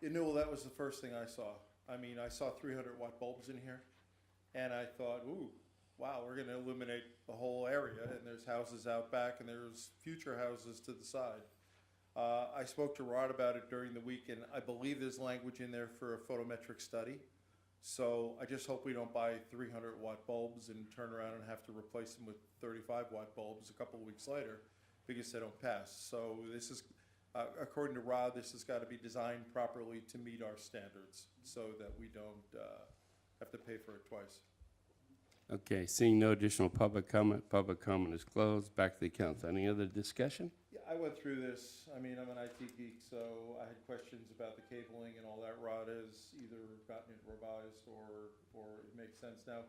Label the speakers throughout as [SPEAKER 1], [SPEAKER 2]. [SPEAKER 1] You know, well, that was the first thing I saw. I mean, I saw 300 watt bulbs in here, and I thought, ooh, wow, we're going to illuminate the whole area, and there's houses out back, and there's future houses to the side. Uh, I spoke to Rod about it during the week, and I believe there's language in there for a photometric study. So I just hope we don't buy 300 watt bulbs and turn around and have to replace them with 35 watt bulbs a couple of weeks later because they don't pass. So this is, uh, according to Rod, this has got to be designed properly to meet our standards so that we don't uh, have to pay for it twice.
[SPEAKER 2] Okay, seeing no additional public comment, public comment is closed. Back to the council. Any other discussion?
[SPEAKER 1] Yeah, I went through this. I mean, I'm an IT geek, so I had questions about the cabling and all that. Rod has either gotten it revised or, or it makes sense now.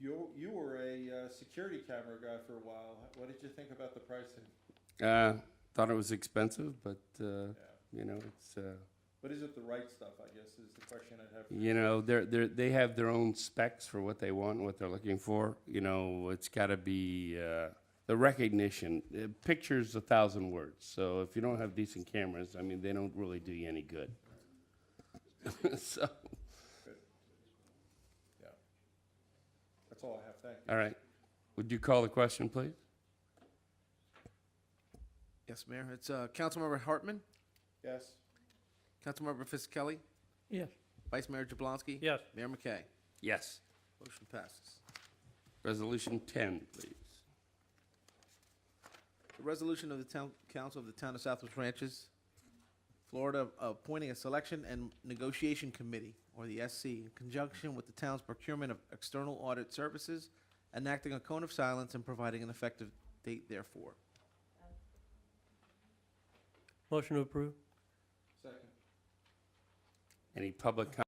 [SPEAKER 1] You, you were a uh, security camera guy for a while. What did you think about the pricing?
[SPEAKER 2] Uh, thought it was expensive, but, uh,
[SPEAKER 1] Yeah.
[SPEAKER 2] you know, it's, uh,
[SPEAKER 1] But is it the right stuff, I guess, is the question I'd have.
[SPEAKER 2] you know, they're, they're, they have their own specs for what they want, and what they're looking for. You know, it's gotta be, uh, the recognition. Uh, Picture's a thousand words, so if you don't have decent cameras, I mean, they don't really do you any good. So,
[SPEAKER 1] Yeah. That's all I have. Thank you.
[SPEAKER 2] all right. Would you call the question, please?
[SPEAKER 3] Yes, Mayor. It's uh, Councilmember Hartman,
[SPEAKER 1] Yes?
[SPEAKER 3] Councilmember Fisickelli,
[SPEAKER 4] Yes.
[SPEAKER 3] Vice Mayor Jablonski.
[SPEAKER 4] Yes.
[SPEAKER 3] Mayor McKay.
[SPEAKER 2] Yes.
[SPEAKER 3] Motion passes.
[SPEAKER 2] Resolution ten, please.
[SPEAKER 3] The resolution of the Town Council of the Town of Southwest Ranches, Florida, appointing a selection and negotiation committee, or the SC, in conjunction with the town's procurement of external audit services, enacting a cone of silence and providing an effective date therefore.
[SPEAKER 4] Motion to approve?
[SPEAKER 1] Second.
[SPEAKER 2] Any public comment?